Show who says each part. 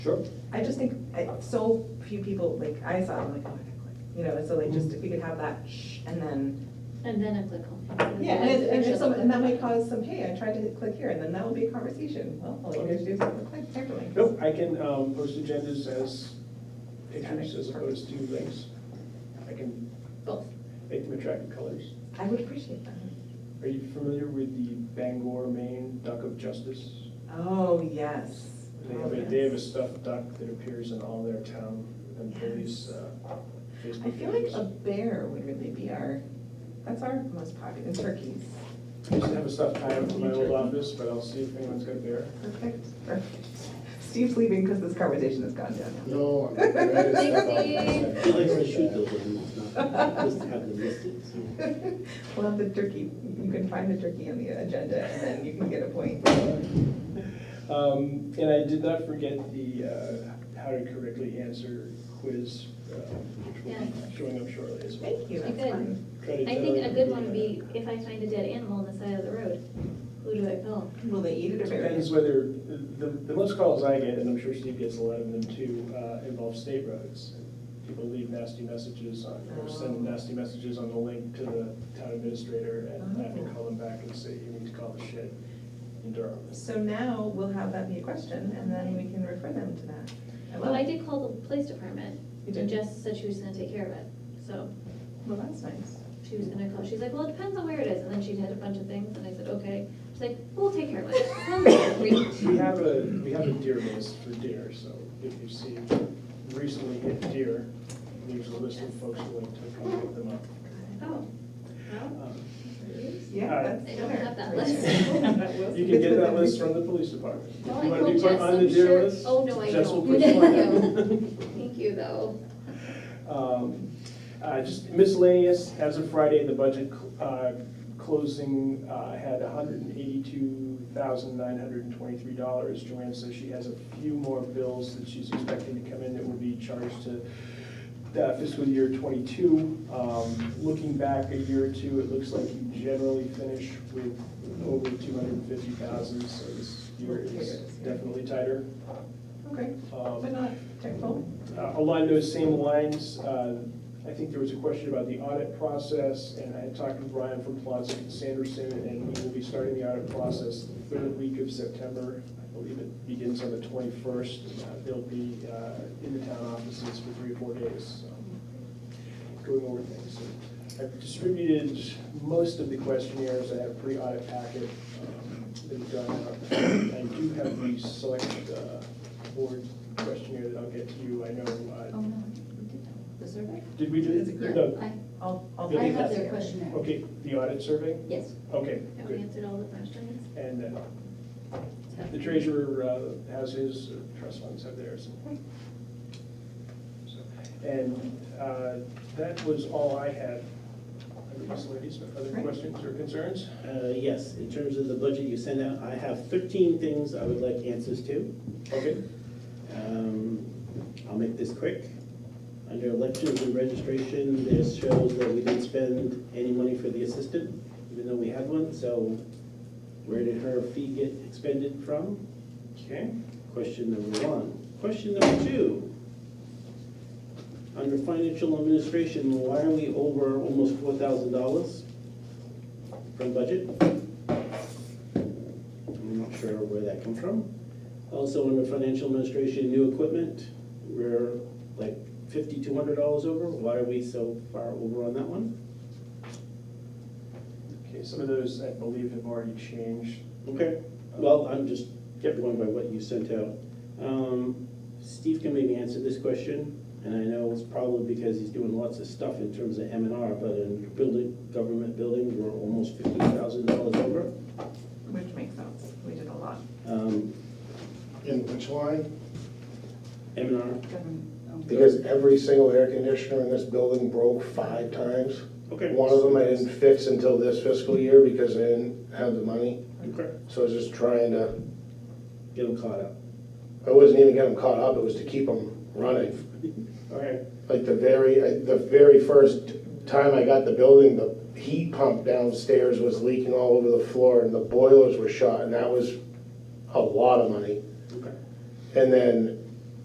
Speaker 1: Sure.
Speaker 2: I just think, I, so few people, like, I saw, it, I'm like, oh, I gotta click, you know, and so like, just if we could have that, shh, and then.
Speaker 3: And then I click on.
Speaker 2: Yeah, and it, and if some, and that may cause some, hey, I tried to click here, and then that will be a conversation, well, all you guys do is click, click, click.
Speaker 1: Nope, I can um, post agendas as pictures as opposed to links. I can
Speaker 3: Both.
Speaker 1: make them attractive colors.
Speaker 2: I would appreciate that.
Speaker 1: Are you familiar with the Bangor, Maine Duck of Justice?
Speaker 2: Oh, yes.
Speaker 1: They have
Speaker 2: Oh,
Speaker 1: a, they have a stuffed duck that appears in all their town and police uh,
Speaker 2: I
Speaker 1: Facebook
Speaker 2: feel like
Speaker 1: pages.
Speaker 2: a bear would really be our, that's our most popular, and turkeys.
Speaker 1: I used to have a stuffed tiger in my old office, but I'll see if anyone's got there.
Speaker 2: Perfect, perfect. Steve's leaving because this conversation has gone downhill.
Speaker 4: No. I
Speaker 3: Dixie.
Speaker 4: I
Speaker 5: He likes to shoot those animals, not just to have them listed, so.
Speaker 2: We'll have the turkey, you can find the turkey on the agenda, and then you can get a point.
Speaker 1: Um, And I did not forget the uh, how to correctly answer quiz, uh, which will
Speaker 3: Yeah.
Speaker 1: be showing up shortly as well.
Speaker 2: Thank you,
Speaker 3: Pretty
Speaker 2: that's
Speaker 3: good.
Speaker 2: fun.
Speaker 1: Credit
Speaker 3: I think a
Speaker 1: Doug.
Speaker 3: good one would be, if I find a dead animal on the side of the road, who do I call?
Speaker 2: Will they eat it or bury
Speaker 1: Depends
Speaker 2: it?
Speaker 1: whether, the, the most calls I get, and I'm sure Steve gets a lot of them too, uh, involve state roads. People leave nasty messages on, or send
Speaker 3: Oh.
Speaker 1: nasty messages on the link to the town administrator, and
Speaker 3: Oh.
Speaker 1: I have to call them back and say, you need to call the shit in Durham.
Speaker 2: So now we'll have that be a question, and then we can refer them to that. I
Speaker 3: Well,
Speaker 2: love
Speaker 3: I
Speaker 2: it.
Speaker 3: did call the police department,
Speaker 2: You
Speaker 3: and
Speaker 2: did?
Speaker 3: Jess said she was gonna take care of it, so
Speaker 2: Well, that's nice.
Speaker 3: she was gonna call, she's like, well, it depends on where it is, and then she had a bunch of things, and I said, okay. She's like, we'll take care of it. Sounds like a reach.
Speaker 1: We have a, we have a deer list for deer, so if you see recently hit deer, there's a list of folks who like to come pick them up.
Speaker 3: Oh, well,
Speaker 1: Um,
Speaker 2: Yeah,
Speaker 1: Alright.
Speaker 2: that's.
Speaker 3: I don't have that
Speaker 2: fair.
Speaker 3: list.
Speaker 1: You can get that list from the police department. If
Speaker 3: Well, I
Speaker 1: you want to be put
Speaker 3: told Jess,
Speaker 1: on the
Speaker 3: I'm
Speaker 1: deer
Speaker 3: sure-
Speaker 1: list,
Speaker 3: oh, no, I
Speaker 1: Jess will
Speaker 3: don't.
Speaker 1: put you on
Speaker 3: No.
Speaker 1: it.
Speaker 3: thank you, though.
Speaker 1: Um, uh, Just miscellaneous, as of Friday, the budget cl- uh, closing uh, had $182,923. Joanne says she has a few more bills that she's expecting to come in that will be charged to uh, fiscal year '22. Looking back a year or two, it looks like you generally finish with over 250,000, so this year is definitely tighter.
Speaker 2: Okay,
Speaker 1: Um,
Speaker 2: but not technical.
Speaker 1: uh, Along those same lines, uh, I think there was a question about the audit process, and I had talked with Brian from Plaza and Sanderson, and we will be starting the audit process the third week of September. I believe it begins on the 21st. They'll be uh, in the town offices for three or four days, so going over things. So I've distributed most of the questionnaires. I have a pre-audit packet um, that have gone out. I do have the select uh, board questionnaire that I'll get to you. I know uh,
Speaker 6: Oh, no, we did that. The survey?
Speaker 1: did we do
Speaker 2: It's a
Speaker 1: it?
Speaker 2: group.
Speaker 1: No.
Speaker 6: I,
Speaker 2: I'll, I'll.
Speaker 1: Yeah,
Speaker 6: I
Speaker 1: we
Speaker 2: take
Speaker 6: have
Speaker 2: that
Speaker 6: their
Speaker 2: here.
Speaker 6: questionnaire.
Speaker 1: Okay, the audit survey?
Speaker 6: Yes.
Speaker 1: Okay,
Speaker 3: Have we
Speaker 1: good.
Speaker 3: answered all the questions?
Speaker 1: And then
Speaker 3: So-
Speaker 1: the treasurer uh, has his, uh, trust funds have theirs. So, And uh, that was all I had. Other Miss Ladies, other
Speaker 2: Right.
Speaker 1: questions or concerns?
Speaker 5: Uh, Yes, in terms of the budget you send out, I have 13 things I would like answers to.
Speaker 1: Okay,
Speaker 5: Um, I'll make this quick. Under elections and registration, this shows that we didn't spend any money for the assistant, even though we had one, so where did her fee get expended from?
Speaker 1: okay.
Speaker 5: Question number one. Question number two. Under financial administration, why are we over almost four thousand dollars from budget? I'm not sure where that come from. Also, under financial administration, new equipment, we're like fifty-two hundred dollars over. Why are we so far over on that one?
Speaker 1: Okay, some of those, I believe, have already changed.
Speaker 5: Okay, well, I'm just kept going by what you sent out. Um, Steve can maybe answer this question, and I know it's probably because he's doing lots of stuff in terms of M and R, but in building, government buildings, we're almost fifty thousand dollars over.
Speaker 2: Which makes sense. We did a lot.
Speaker 5: Um,
Speaker 4: In which line?
Speaker 5: M and R,
Speaker 4: Because every single air conditioner in this building broke five times.
Speaker 5: okay.
Speaker 4: One of them I didn't fix until this fiscal year because I didn't have the money.
Speaker 5: Okay,
Speaker 4: So I was just trying to,
Speaker 5: get him caught up.
Speaker 4: I wasn't even getting them caught up, it was to keep them running.
Speaker 5: All right,
Speaker 4: like the very, I- the very first time I got the building, the heat pump downstairs was leaking all over the floor and the boilers were shot and that was a lot of money.
Speaker 5: okay.
Speaker 4: And then